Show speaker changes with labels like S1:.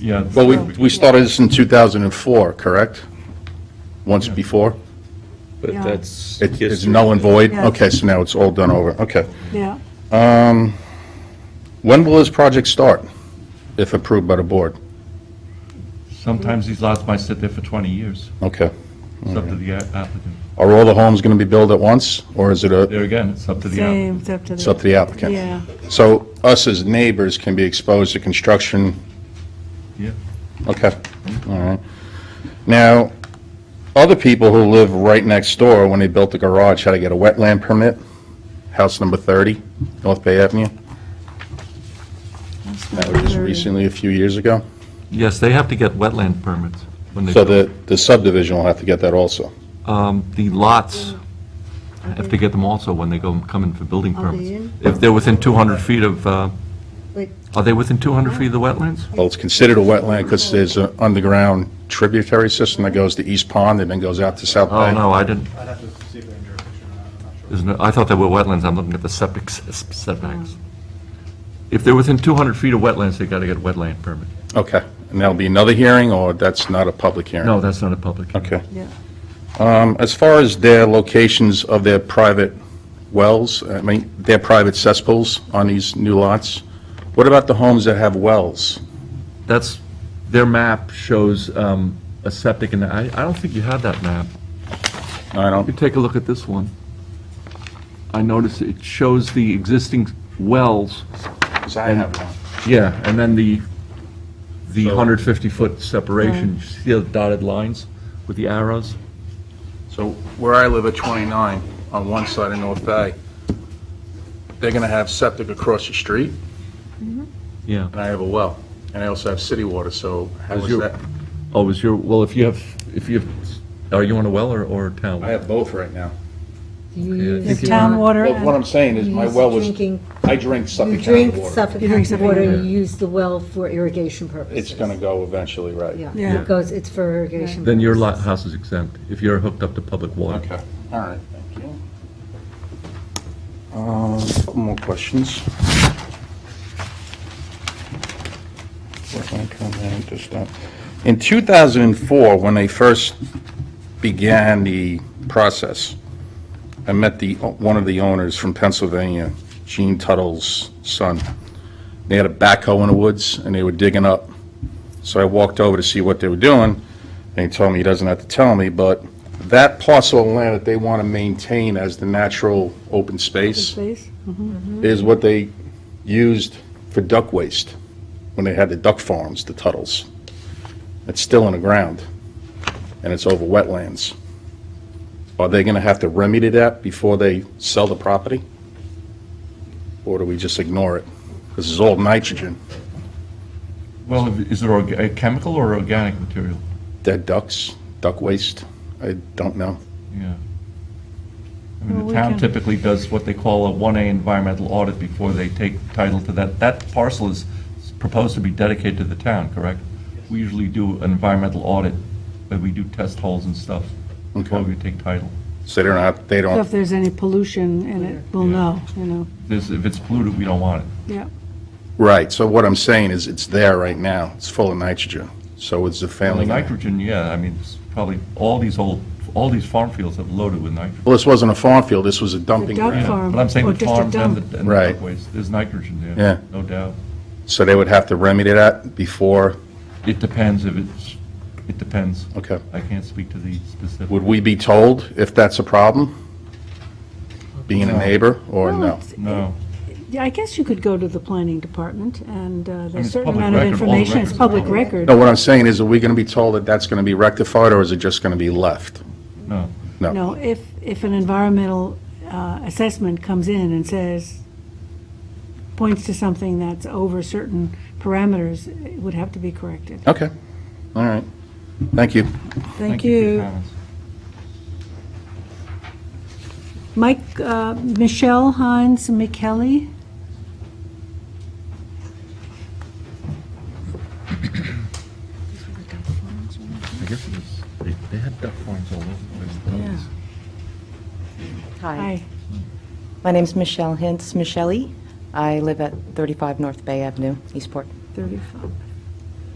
S1: Yeah.
S2: Well, we, we started this in 2004, correct? Once before?
S3: But
S4: Yeah.
S3: that's.
S2: It- It's
S3: history.
S2: null and void?
S4: Yeah.
S2: Okay, so now it's all done over, okay.
S4: Yeah,
S2: When will this project start, if approved by the board?
S1: Sometimes these lots might sit there for 20 years.
S2: Okay.
S1: It's up to the a- applicant.
S2: Are all the homes going to be built at once, or is it a,
S1: There again, it's up to the applicant.
S4: same, it's up to the.
S2: it's up to the applicant?
S4: Yeah,
S2: So us as neighbors can be exposed to construction
S1: Yeah.
S2: Okay, all right. Now, other people who live right next door, when they built the garage, had to get a wetland permit, house number 30, North Bay Avenue. That was just
S4: 30.
S2: recently, a few years ago.
S1: Yes, they have to get wetland permits when they,
S2: So the the subdivision will have to get that also.
S1: um, the lots have to get them also when they go, come in for building
S4: Are they
S1: permits. If they're within 200 feet of, uh,
S4: Wait.
S1: are they within 200 feet of the wetlands?
S2: Well, it's considered a wetland because there's an underground tributary system that goes to East Pond and then goes out to South
S1: Oh,
S2: Bay.
S1: no, I didn't,
S5: I'd have to see if they're in jurisdiction or not, I'm not sure.
S1: isn't it, I thought they were wetlands, I'm looking at the septic s- setbacks. If they're within 200 feet of wetlands, they got to get a wetland permit.
S2: Okay, and that'll be another hearing, or that's not a public hearing?
S1: No, that's not a public hearing.
S2: Okay.
S4: yeah.
S2: Um, As far as their locations of their private wells, I mean, their private cesspools on these new lots, what about the homes that have wells?
S1: That's, their map shows um, a septic, and I, I don't think you have that map.
S2: I
S1: You
S2: don't,
S1: take a look at this one. I notice it shows the existing wells,
S2: because I have one.
S1: yeah, and then the, the
S2: So-
S1: 150-foot separation, you see the dotted lines with the arrows?
S2: So where I live at 29, on one side of North Bay, they're going to have septic across the street,
S1: Yeah.
S2: and I have a well. And I also have city water, so how
S1: Is
S2: is
S1: your-
S2: that?
S1: Oh, is your, well, if you have, if you have, are you on a well or, or a town? well?
S2: I have both right now.
S1: Okay, I
S6: Use
S1: think you-
S4: Town water,
S2: Well, what
S4: and-
S2: I'm saying is my
S6: use
S2: well was,
S6: drinking-
S2: I drink
S6: You
S2: Suffolk County
S6: drink
S2: water.
S6: Suffolk
S4: You drink
S6: County
S4: Suffolk
S6: water,
S4: County.
S6: you use the well for irrigation purposes.
S2: It's going to go eventually, right?
S6: Yeah,
S4: Yeah.
S6: it goes, it's for irrigation.
S1: Then your lot
S6: purposes.
S1: house is exempt, if you're hooked up to public water.
S2: Okay, all right, thank you. Um, Couple more questions. Wetland comment, just that. In 2004, when they first began the process, I met the, one of the owners from Pennsylvania, Gene Tuttle's son. They had a backhoe in the woods, and they were digging up. So I walked over to see what they were doing, and he told me he doesn't have to tell me, but that parcel of land that they want to maintain as the natural open space
S4: space,
S2: is what they used for duck waste when they had the duck farms, the Tuttles. It's still in the ground, and it's over wetlands. Are they going to have to remedy that before they sell the property? Or do we just ignore it? This is all nitrogen.
S1: Well, is it orga- a chemical or organic material?
S2: Dead ducks, duck waste, I don't know.
S1: Yeah. I mean,
S4: Well,
S1: the
S4: we
S1: town
S4: can-
S1: typically does what they call a 1A environmental audit before they take title to that. That parcel is proposed to be dedicated to the town, correct? We usually do an environmental audit, but we do test holes and stuff before
S2: Okay.
S1: we take title.
S2: So they don't have, they
S4: So if
S2: don't,
S4: there's any pollution in it, we'll know, you know,
S1: This, if it's polluted, we don't want it.
S4: yeah.
S2: right, so what I'm saying is it's there right now, it's full of nitrogen, so it's the
S1: And the
S2: family.
S1: nitrogen, yeah, I mean, it's probably, all these old, all these farm fields have loaded with nitrogen.
S2: Well, this wasn't a farm field, this was a dumping
S4: duck
S2: ground.
S1: Yeah,
S4: Farm,
S1: But I'm saying
S4: or
S1: the
S4: just a
S1: farms and the
S4: dump.
S1: and the
S2: Right.
S1: duckways, there's nitrogen there.
S2: Yeah.
S1: No doubt.
S2: So they would have to remedy that before,
S1: It depends if it's, it depends.
S2: okay.
S1: I can't speak to the specific.
S2: Would we be told if that's a problem? Being a neighbor or
S4: Well,
S2: no?
S4: it's-
S1: No.
S4: Yeah, I guess you could go to the planning department, and uh, there's a
S1: it's
S4: certain
S1: public
S4: amount of
S1: record, all the
S4: information,
S1: records
S4: it's
S1: are
S4: public
S1: public.
S4: record.
S2: No, what I'm saying is, are we going to be told that that's going to be rectified or is it just going to be left?
S1: No.
S4: No, if, if an environmental uh, assessment comes in and says, points to something that's over certain parameters, it would have to be corrected.
S2: Okay, all right, thank you.
S4: Thank
S1: for your
S4: you.
S1: comments.
S4: Mike, uh, Michelle Hines McKelly?
S1: I guess it was, they, they had duck farms all over the place.
S4: Yeah.
S7: Hi, my name's Michelle Hintz, Michelli. I live at 35 North Bay Avenue, Eastport.
S4: 35.